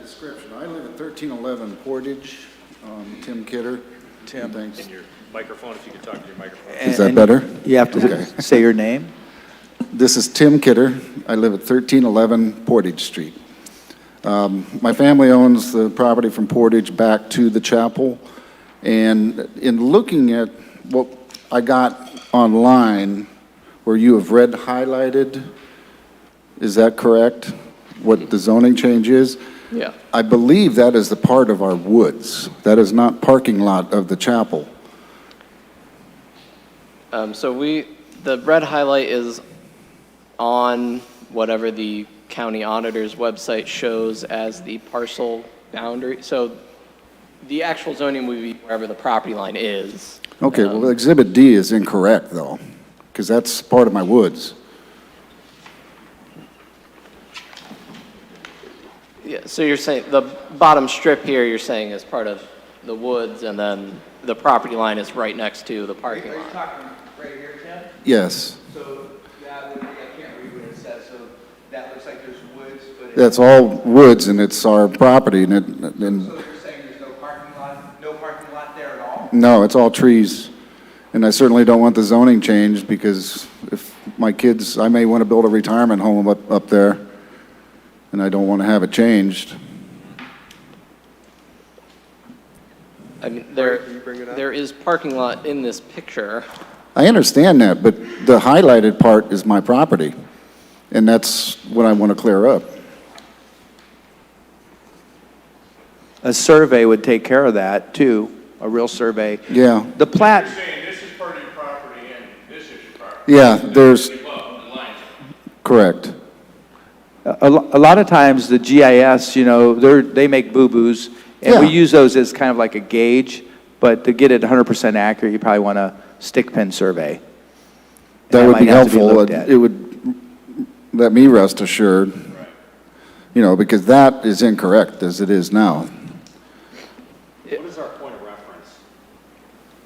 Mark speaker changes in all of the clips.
Speaker 1: description, I live at 1311 Portage, um, Tim Kidder. Tim. Thanks.
Speaker 2: in your microphone, if you could talk to your microphone.
Speaker 1: Is that better?
Speaker 3: You have
Speaker 1: Okay.
Speaker 3: to say your name.
Speaker 1: This is Tim Kidder. I live at 1311 Portage Street. Um, My family owns the property from Portage back to the chapel, and in looking at what I got online, where you have red highlighted, is that correct? What the zoning change is?
Speaker 4: Yeah.
Speaker 1: I believe that is the part of our woods. That is not parking lot of the chapel.
Speaker 4: Um, so we, the red highlight is on whatever the county auditor's website shows as the parcel boundary. So the actual zoning would be wherever the property line is. Um,
Speaker 1: Okay, well, Exhibit D is incorrect, though, because that's part of my woods.
Speaker 4: Yeah, so you're saying, the bottom strip here, you're saying is part of the woods and then the property line is right next to the parking lot.
Speaker 5: talking right here, Tim?
Speaker 1: Yes,
Speaker 5: So that would, I can't read what it says, so that looks like there's woods, but it's,
Speaker 1: that's all woods, and it's our property, and it, and,
Speaker 5: so you're saying there's no parking lot, no parking lot there at all?
Speaker 1: no, it's all trees. And I certainly don't want the zoning changed, because if my kids, I may want to build a retirement home up, up there, and I don't want to have it changed.
Speaker 4: I mean, there, there is parking lot in this picture.
Speaker 1: I understand that, but the highlighted part is my property, and that's what I want to clear up.
Speaker 3: A survey would take care of that, too, a real survey.
Speaker 1: Yeah,
Speaker 3: The plat,
Speaker 6: You're saying this is part of your property and this is your property.
Speaker 1: yeah, there's,
Speaker 6: Above the lines.
Speaker 1: correct.
Speaker 3: a a lo- a lot of times, the GIS, you know, they're, they make boo-boos, and we
Speaker 1: Yeah.
Speaker 3: use those as kind of like a gauge, but to get it 100% accurate, you probably want a stick pin survey. And
Speaker 1: That would
Speaker 3: might
Speaker 1: be
Speaker 3: have to
Speaker 1: helpful.
Speaker 3: looked
Speaker 1: It
Speaker 3: at.
Speaker 1: it would let me rest assured, you know, because that is incorrect as it is now.
Speaker 2: What is our point of reference?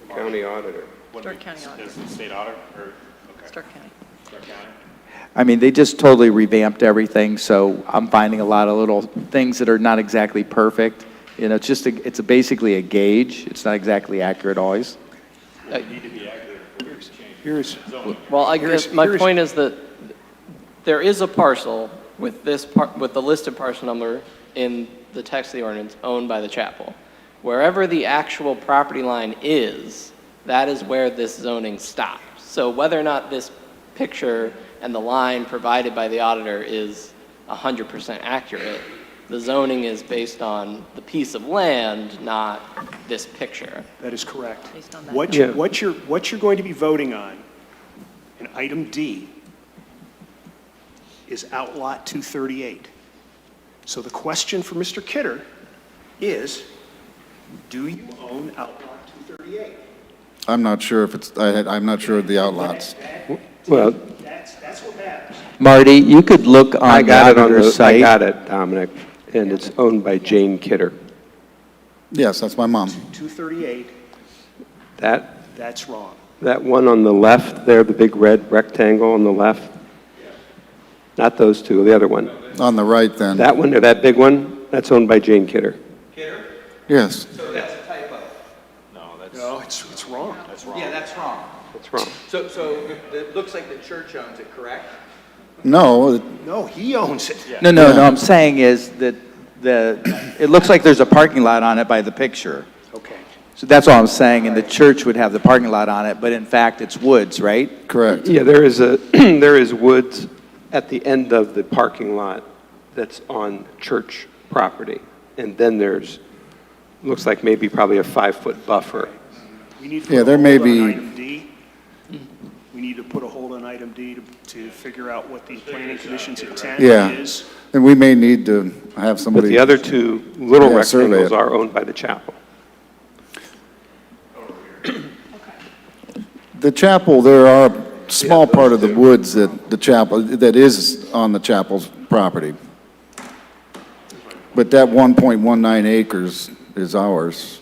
Speaker 7: County auditor.
Speaker 2: What
Speaker 8: Stark
Speaker 2: we-
Speaker 8: County Auditor.
Speaker 2: Is it state auditor, or, okay.
Speaker 8: Stark County.
Speaker 2: Stark County?
Speaker 3: I mean, they just totally revamped everything, so I'm finding a lot of little things that are not exactly perfect. You know, it's just, a- it's a- basically a gauge. It's not exactly accurate always.
Speaker 2: Need to be accurate, we need to change
Speaker 7: Here's,
Speaker 2: zoning.
Speaker 4: Well, I guess,
Speaker 7: Here's-
Speaker 4: my
Speaker 7: here's-
Speaker 4: point is that there is a parcel with this par, with the listed parcel number in the text of the ordinance owned by the chapel. Wherever the actual property line is, that is where this zoning stops. So whether or not this picture and the line provided by the auditor is hundred percent accurate, the zoning is based on the piece of land, not this picture.
Speaker 9: That is correct.
Speaker 8: Based on that.
Speaker 9: What you what you're, what you're going to be voting on in item D is Outlot 238. So the question for Mr. Kidder is, do you own Outlot 238?
Speaker 1: I'm not sure if it's, I, had- I'm not sure of the outlots.
Speaker 7: well,
Speaker 9: That's, that's what matters.
Speaker 3: Marty, you could look
Speaker 7: I
Speaker 3: on the
Speaker 7: got it on
Speaker 3: auditor's
Speaker 7: the,
Speaker 3: site.
Speaker 7: I got it, Dominic, and it's owned by Jane Kidder.
Speaker 1: Yes, that's my mom.
Speaker 9: 238,
Speaker 7: That,
Speaker 9: that's wrong.
Speaker 7: that one on the left there, the big red rectangle on the left? Not those two, the other one.
Speaker 1: On the right then.
Speaker 7: That one, or that big one, that's owned by Jane Kidder.
Speaker 1: Yes,
Speaker 5: So that's a typo.
Speaker 2: No, that's,
Speaker 9: No, it's, it's wrong.
Speaker 2: that's wrong.
Speaker 5: Yeah, that's wrong.
Speaker 7: That's wrong.
Speaker 5: So, so it looks like the church owns it, correct?
Speaker 1: no,
Speaker 9: No, he owns it.
Speaker 3: No, no, no, I'm saying is that the, it looks like there's a parking lot on it by the picture.
Speaker 9: Okay.
Speaker 3: So that's all I'm saying, and the church would have the parking lot on it, but in fact, it's woods, right?
Speaker 1: correct.
Speaker 7: Yeah, there is a, there is woods at the end of the parking lot that's on church property. And then there's, looks like maybe probably a five-foot buffer.
Speaker 9: We need to
Speaker 1: Yeah,
Speaker 9: put
Speaker 1: there
Speaker 9: a
Speaker 1: may
Speaker 9: hold on
Speaker 1: be-
Speaker 9: item D. We need to put a hold on item D to, to figure out what the planning commission's intent
Speaker 1: Yeah.
Speaker 9: is.
Speaker 1: And we may need to have
Speaker 7: But
Speaker 1: somebody.
Speaker 7: the other two little
Speaker 1: Yeah, survey
Speaker 7: rectangles
Speaker 1: it.
Speaker 7: are owned by the chapel.
Speaker 1: The chapel, there are a small part of the woods that the chapel, that is on the chapel's property. But that 1.19 acres is ours.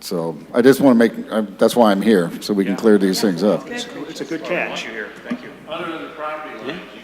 Speaker 1: So I just want to make, I- that's why I'm here, so we can clear these things up.
Speaker 9: It's a good catch. Thank you.
Speaker 6: Other than the